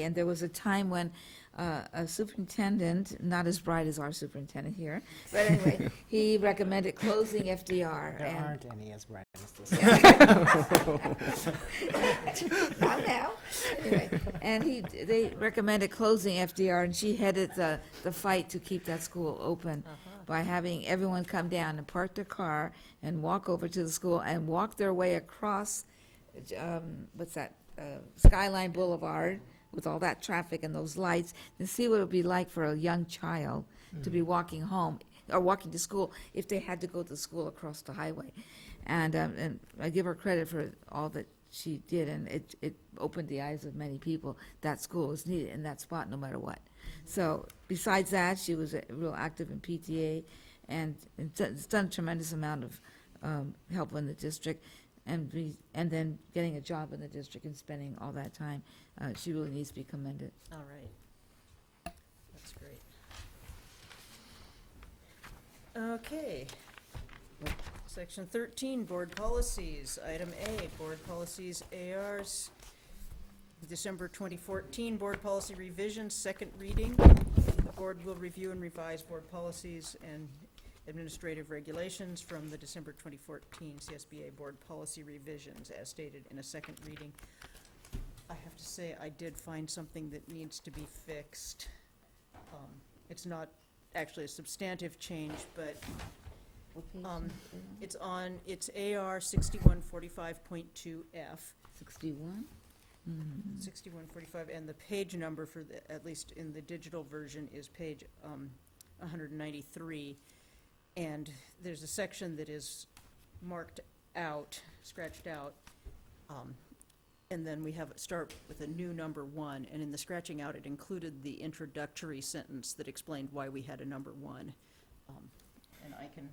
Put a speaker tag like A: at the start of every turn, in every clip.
A: And there was a time when uh, a superintendent, not as bright as our superintendent here, but anyway, he recommended closing FDR.
B: There
A: and-
B: aren't any as bright as this.
A: Not now. Anyway, And he, they recommended closing FDR, and she headed the, the fight to keep that school open by having everyone come down and park their car and walk over to the school and walk their way across, um, what's that, uh, Skyline Boulevard with all that traffic and those lights, and see what it would be like for a young child to be walking home or walking to school if they had to go to school across the highway. And, um, and I give her credit for all that she did, and it, it opened the eyes of many people. That school is needed in that spot no matter what. So besides that, she was uh, real active in PTA and and d- has done tremendous amount of um, help in the district. And be, and then getting a job in the district and spending all that time, uh, she really needs to be commended.
C: All right. That's great. Okay. Section 13, Board Policies. Item A, Board Policies ARs. December 2014 Board Policy Revision, second reading. The board will review and revise board policies and administrative regulations from the December 2014 CSBA Board Policy Revisions as stated in a second reading. I have to say, I did find something that needs to be fixed. Um, It's not actually a substantive change, but Um, it's on, it's AR 6145.2F.
A: Sixty-one. Mm-hmm.
C: 6145, and the page number for the, at least in the digital version, is page um, 193. And there's a section that is marked out, scratched out. um, And then we have, it start with a new number one, and in the scratching out, it included the introductory sentence that explained why we had a number one. Um, And I can,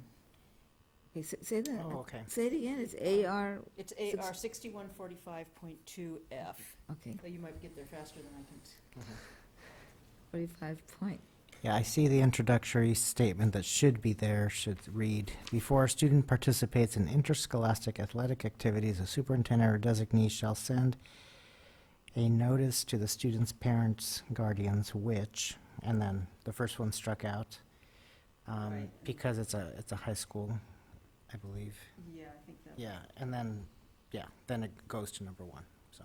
A: Okay, say, say that.
B: Oh, okay.
A: Say it again. It's A R.
C: it's
A: Six-
C: AR 6145.2F.
A: Okay,
C: Though You might get there faster than I can.
A: forty-five point.
B: Yeah, I see the introductory statement that should be there should read, "Before a student participates in interscholastic athletic activities, a superintendent or designee shall send a notice to the student's parents, guardians, which," and then the first one struck out, um,
C: Right.
B: because it's a, it's a high school, I believe.
C: Yeah, I think that.
B: Yeah, and then, yeah, then it goes to number one, so.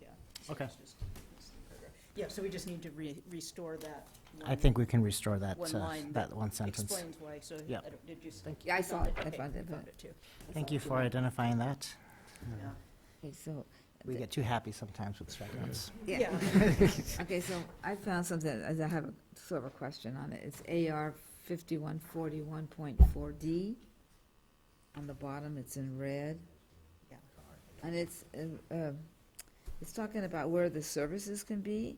C: Yeah.
B: Okay.
C: It's just- it's the paragraph. Yeah, so we just need to re- restore that.
B: I
C: one.
B: think we can restore that,
C: one
B: uh,
C: line
B: that one sentence.
C: Explains why, so, I
B: Yeah.
C: don't- did you? s-
B: Thank
A: you. Yeah, I
C: you
A: saw
C: found
A: it. I
C: Okay,
A: found
C: you
A: it,
C: found
A: but-
C: it too.
B: Thank you for identifying that.
C: Yeah.
A: Okay, so.
B: We get too happy sometimes with strikeouts.
A: Yeah.
C: Yeah.
A: Okay, so I found something, as I have a sort of a question on it. It's AR fifty-one forty-one point four D. On the bottom, it's in red.
C: Yeah.
A: And it's, uh, um, it's talking about where the services can be.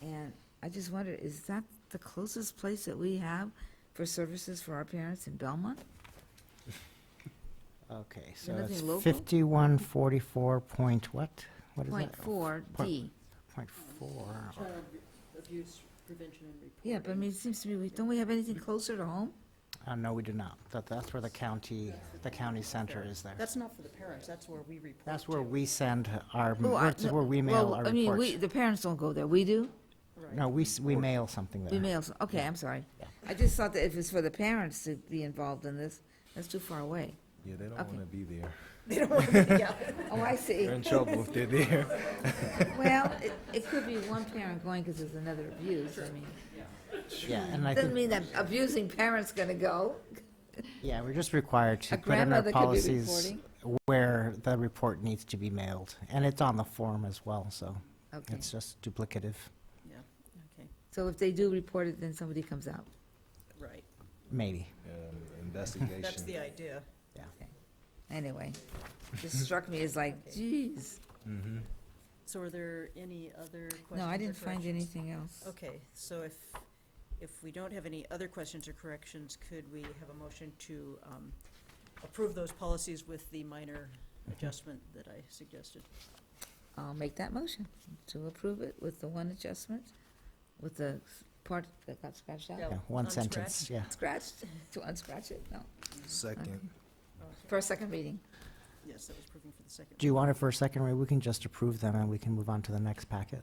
A: And I just wonder, is that the closest place that we have for services for our parents in Belmont?
B: Okay, so it's
A: nothing local?
B: fifty-one forty-four point what? What is that?
A: Point four D.
B: Point four.
C: Child abuse prevention and reporting.
A: Yeah, but I mean, it seems to me, we don't we have
B: Mm.
A: anything closer to home?
B: Uh, no, we do not. That, that's where the county, the county center is there.
C: That's not for the parents, that's where we report.
B: That's where
C: to.
B: we send our,
A: Oh, I-
B: that's where we mail
A: well,
B: our
A: I mean, we,
B: reports.
A: the parents don't go there, we do?
C: Right.
B: No, we, s- we mail something
A: We
B: there.
A: mail, s- okay, I'm sorry.
B: Yeah.
A: I just thought that if it's for the parents to be involved in this, that's too far away.
D: Yeah, they don't
A: Okay.
D: want to be there.
C: They don't want to, yeah.
A: Oh, I see.
D: They're in trouble if they're there.
A: Well, it, it could be one parent going because there's another abuse, I mean.
B: Yeah, and I
A: Doesn't mean
B: think,
A: that abusing parent's gonna go.
B: yeah, we're just required
A: A
B: to put in our
A: grandmother could be
B: policies where the report needs to be mailed. And it's on the form as well, so
A: Okay,
B: it's just duplicative.
C: Yeah, okay,
A: so if they do report it, then somebody comes out.
C: right,
B: Maybe.
D: Um, Investigation.
C: that's the idea.
A: Anyway, this struck me as like, geez.
D: Mm-hmm.
C: So are there any other questions?
A: No, I
C: or
A: didn't find
C: corrections?
A: anything else.
C: Okay, so if, if we don't have any other questions or corrections, could we have a motion to um, approve those policies with the minor adjustment that I suggested?
A: I'll make that motion to approve it with the one adjustment, with the s- part that got scratched out.
C: Yeah.
B: Yeah, one
C: Unscratch.
B: sentence, yeah.
A: Scratched, to unscratch it, no,
D: Second.
A: for a second reading.
C: Mm-hmm. Yes, that was approving for the second.
B: Do you want it for a second, Ray? We can just approve them and we can move on to the next packet.